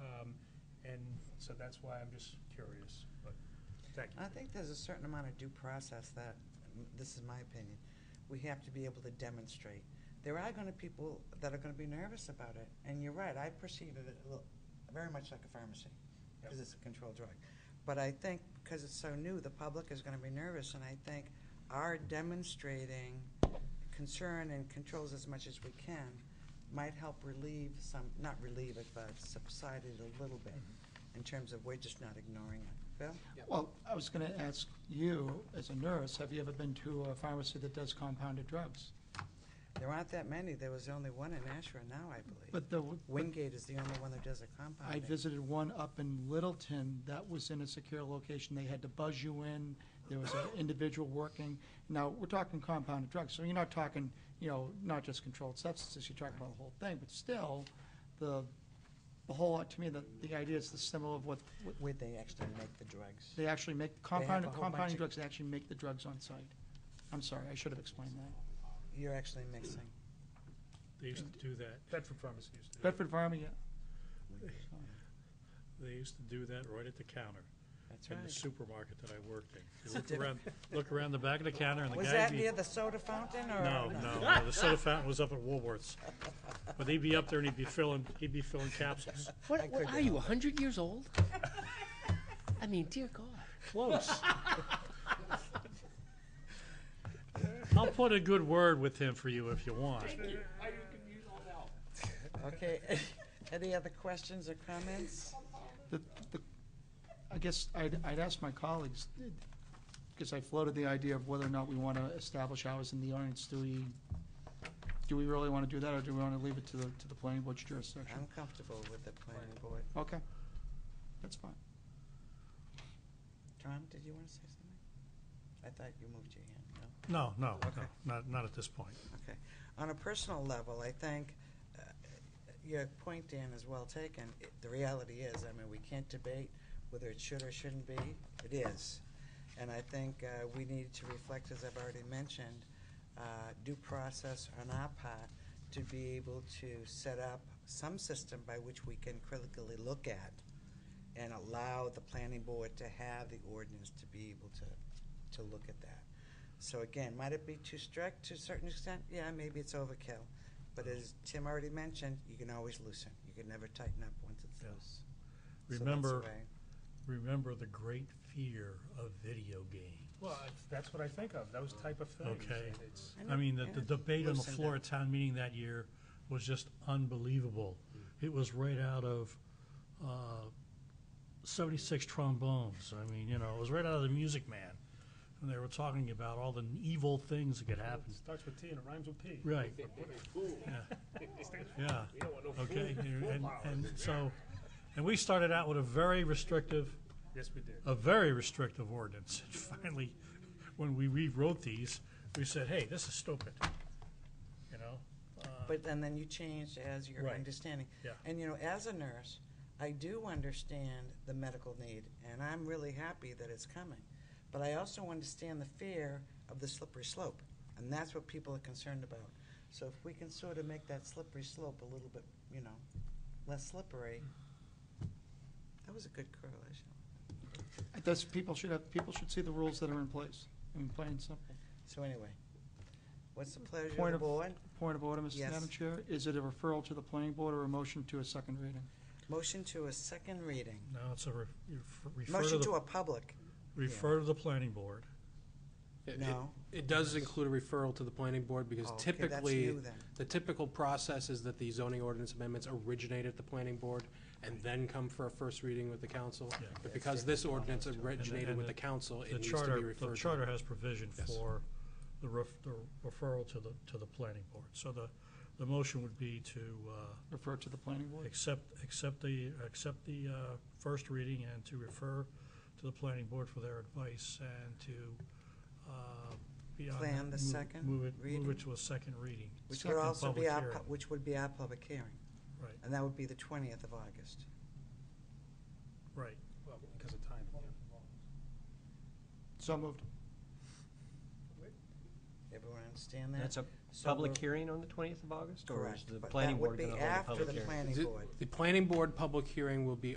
Um, and so that's why I'm just curious, but, thank you. I think there's a certain amount of due process that, this is my opinion, we have to be able to demonstrate. There are gonna people that are gonna be nervous about it, and you're right, I perceive it a little, very much like a pharmacy, because Yep. it's a controlled drug. But I think, because it's so new, the public is gonna be nervous, and I think our demonstrating concern and controls as much as we can might help relieve some, not relieve it, but subside it a little bit, in terms of we're just not ignoring it. Bill? Well, I was going to ask you, as a nurse, have you ever been to a pharmacy that does compounded drugs? There aren't that many. There was only one in Ashra now, I believe. But the, Wingate is the only one that does a compound. I visited one up in Littleton that was in a secure location. They had to buzz you in. There was an individual working. Now, we're talking compounded drugs, so you're not talking, you know, not just controlled substances, you're talking about the whole thing. But still, the, the whole, to me, the, the idea is the symbol of what, what Where they actually make the drugs. they actually make, a compounded, whole bunch compounding of- drugs, they actually make the drugs on site. I'm sorry, I should have explained that. You're actually mixing. They used to do that, Bedford Pharmacy used to do that. Bedford Pharma, yeah. They used to do that right at the counter That's in the right. supermarket that I worked in. You a Look diff- around, look around the back of the counter and the guy. Was that be- near the soda fountain or? No, no, no, the soda fountain was up at Woolworths. But he'd be up there and he'd be filling, he'd be filling capsules. I What, what could are you, 100 years old? I mean, dear God. Close. I'll put a good word with him for you if you want. Okay. Any other questions or comments? The, the, I guess I'd, I'd ask my colleagues, because I floated the idea of whether or not we want to establish hours in the audience. Do we, do we really want to do that, or do we want to leave it to the, to the planning board's I'm jurisdiction? comfortable with the planning board. Okay, that's fine. Tom, did you want to say something? I thought you moved your hand, no? No, no, Okay. no, not, not at this point. Okay. On a personal level, I think uh, your point, Dan, is well taken. It- The reality is, I mean, we can't debate whether it should or shouldn't be. It is. And I think uh, we need to reflect, as I've already mentioned, uh, due process on our part to be able to set up some system by which we can critically look at and allow the planning board to have the ordinance to be able to, to look at that. So again, might it be too strict to a certain extent? Yeah, maybe it's overkill. But as Tim already mentioned, you can always loosen. You can never tighten up once it's Yeah. loose. So that's the Remember, way. remember the great fear of video games. Well, that's- that's what I think of, those type of things. Okay. and it's- And I it- mean, the, and the it debate on the loosened floor up. at town meeting that year was just unbelievable. It was right out of, uh, seventy-six trombones. I mean, you know, it was right out of the Music Man. And they were talking about all the evil things that could happen. It starts with T and it rhymes with P. Right. Yeah. Yeah, okay, and, and so, and we started out with a very restrictive Yes, we did. a very restrictive ordinance. And finally, when we rewrote these, we said, hey, this is stupid, you know? Uh, But, and then you changed as your Right. understanding. Yeah. And, you know, as a nurse, I do understand the medical need, and I'm really happy that it's coming. But I also understand the fear of the slippery slope, and that's what people are concerned about. So if we can sort of make that slippery slope a little bit, you know, less slippery, that was a good correlation. That's, people should have, people should see the rules that are in place, I mean, plain and simple. So anyway, what's the pleasure of Point the of- board? Point of order, Mr. Yes. Madam Chair, is it a referral to the planning board or a motion to a second reading? Motion to a second reading. No, it's a, re- you f- refer to Motion to a the, public. refer to the planning board. It- No. Oh, It it does include a referral to the planning board because Okay, that's new typically, then. the typical process is that the zoning ordinance amendments originate at the planning board and then come for a first reading with the council. Yeah. But because this ordinance And the- originated and with the council, it the needs to charter- be referred to. The charter has provision Yes. for the ref- the referral to the, to the planning board. So the, the motion would be to uh, Refer to the planning board? accept, accept the, accept the uh, first reading and to refer to the planning board for their advice and to, uh, beyond that. Plan the move- second move it- Move reading? it to a second reading. Which would Second also be public our, hearing. pu- which would be our public hearing, Right, and that would be the 20th of August. right. Well, because of time. So moved. Everyone understand that? That's a So public we're- hearing on the 20th of August? Or is Correct. the But planning that would board be going to hold a after public the hearing? planning The- board. The planning board public hearing will be